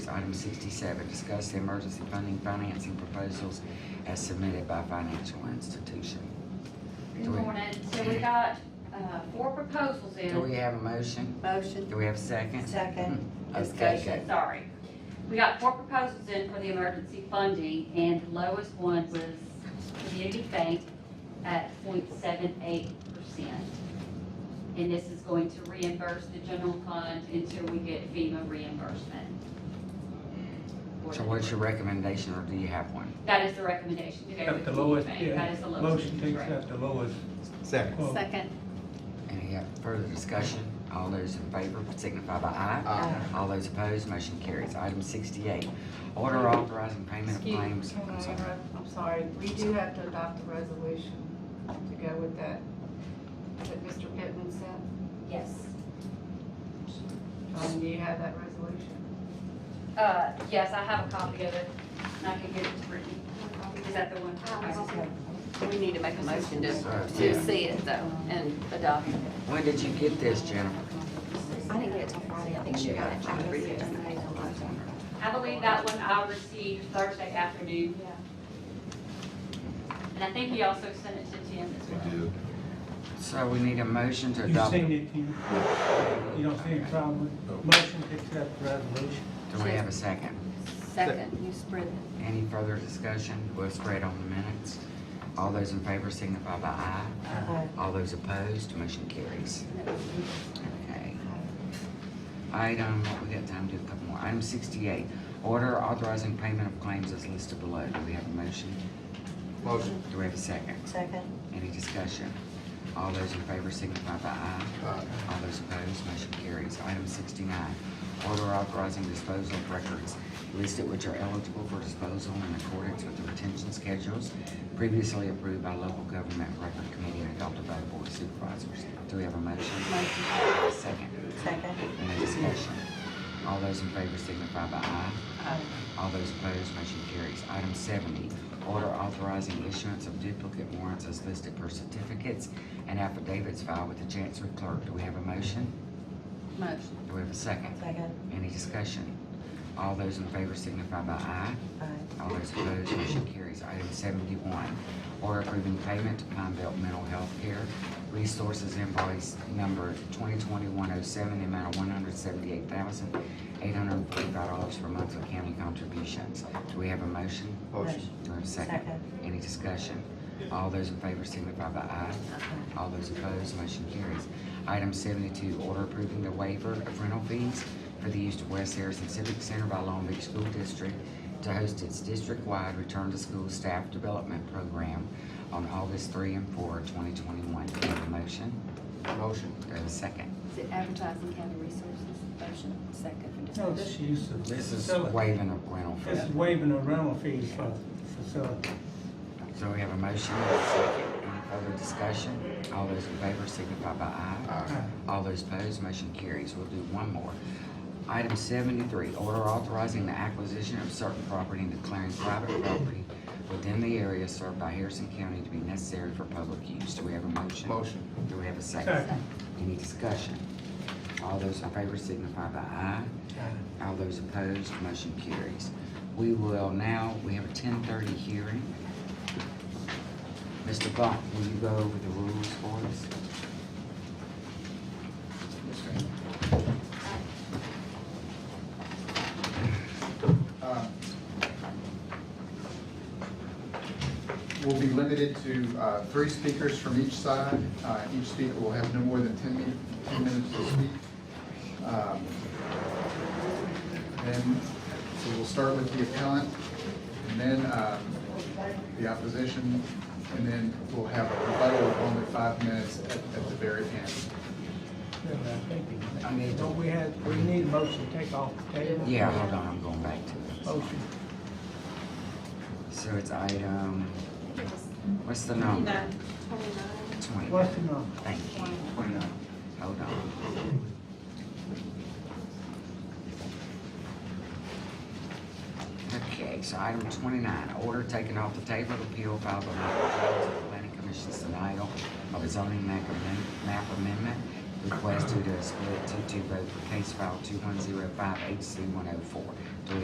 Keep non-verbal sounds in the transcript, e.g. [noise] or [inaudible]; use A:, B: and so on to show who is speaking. A: Item sixty-seven, discuss the emergency funding financing proposals as submitted by financial institution.
B: Good morning. So we got, uh, four proposals
A: Do
B: in.
A: we have a motion?
C: Motion,
A: Do we have a second?
C: second.
A: [laughs] Okay, good.
B: Sorry. We got four proposals in for the emergency funding and the lowest one was Community Bank at 0.78 percent. And this is going to reimburse the general fund until we get FEMA reimbursement.
A: So what's your recommendation, or do you have one?
B: That is the recommendation to go
D: At
B: with
D: the lowest,
B: Community Bank. That
D: yeah,
B: is the lowest.
D: motion to
B: correct.
D: accept the lowest
E: Second.
D: quote.
C: Second.
A: Any further discussion? All those in favor signify by aye.
E: Aye.
A: All those opposed, motion carries. Item sixty-eight, order authorizing payment of
F: Excuse-
A: claims.
F: Hold on,
A: I'm sorry.
F: interrupt. I'm sorry, we do have to adopt a resolution to go with that, that Mr. Pittman sent.
B: Yes.
F: John, do you have that resolution?
B: Uh, yes, I have a copy of it, and I can give it to Brittany. Is that the one?
G: We need to make a motion to,
A: Yeah.
G: to see it though and adopt it.
A: When did you get this, Jennifer?
G: I didn't get it till Friday. I think she got it. I read it.
B: I believe that one I received Thursday afternoon. And I think he also sent it to Jim as well.
E: We do.
A: So we need a motion to
D: You
A: adopt.
D: seen it, you, you don't see any problem with, motion to accept the resolution.
A: Do we have a second?
G: Second, you spread it.
A: Any further discussion? We'll spread on the minutes. All those in favor signify by aye.
C: Aye.
A: All those opposed, motion carries. Okay. Item, what we got time to do a couple more. Item sixty-eight, order authorizing payment of claims as listed below. Do we have a motion?
E: Motion.
A: Do we have a second?
C: Second.
A: Any discussion? All those in favor signify by aye.
E: Aye.
A: All those opposed, motion carries. Item sixty-nine, order authorizing disposal of records listed which are eligible for disposal in accordance with the retention schedules previously approved by local government record committee and adopted by the board of supervisors. Do we have a motion? Motion. Second.
C: Second.
A: Any discussion? All those in favor signify by aye. All those opposed, motion carries. Item seventy, order authorizing issuance of duplicate warrants as listed per certificates and affidavits filed with the Chancery Clerk. Do we have a motion?
G: Motion.
A: Do we have a second?
C: Second.
A: Any discussion? All those in favor signify by aye.
C: Aye.
A: All those opposed, motion carries. Item seventy-one, order approving payment to Pine Belt Mental Health Care Resources invoice number twenty twenty-one oh seven, the amount of one hundred seventy-eight thousand, eight hundred and forty-five dollars for monthly county contributions. Do we have a motion?
E: Motion.
A: Do we have a second?
C: Second.
A: Any discussion? All those in favor signify by aye. All those opposed, motion carries. Item seventy-two, order approving the waiver of rental fees for the use of West Harrison Civic Center by Long Beach School District to host its district-wide Return to School Staff Development Program on August three and four, twenty twenty-one. Do we have a motion?
E: Motion.
A: Do we have a second?
G: Is it advertising county resources? Motion, second for
D: No,
G: discussion.
D: this use of the
A: This is
D: facility.
A: waiving of rental fees.
D: This is waiving the rental fees for facility.
A: So we have a motion and a second. Any further discussion? All those in favor signify by aye.
E: Aye.
A: All those opposed, motion carries. We'll do one more. Item seventy-three, order authorizing the acquisition of certain property and declaring private property within the area served by Harrison County to be necessary for public use. Do we have a motion?
E: Motion.
A: Do we have a second?
D: Second.
A: Any discussion? All those in favor signify by aye. All those opposed, motion carries. We will now, we have a ten thirty hearing. Mr. Bach, will you go over the rules for us?
E: Uh, We'll be limited to uh, three speakers from each side. Uh, Each speaker will have no more than 10 min- 10 minutes to speak. Um, And so we'll start with the appellant, and then um, the opposition, and then we'll have a rebuttal of only five minutes at at the very end.
D: I mean, don't we have, we need a motion to take off the table?
A: Yeah, hold on, I'm going back to it.
D: Motion.
A: So it's item, what's the number? Twenty.
D: What's the number?
A: Thank you.
E: Twenty-nine.
A: Hold on. Okay, so item twenty-nine, order taken off the table, appeal filed by Michael Jones of the planning commission's denial of a zoning map amendment, map amendment oh request due to a split two-two vote for case file two-one-zero-five HC one-oh-four.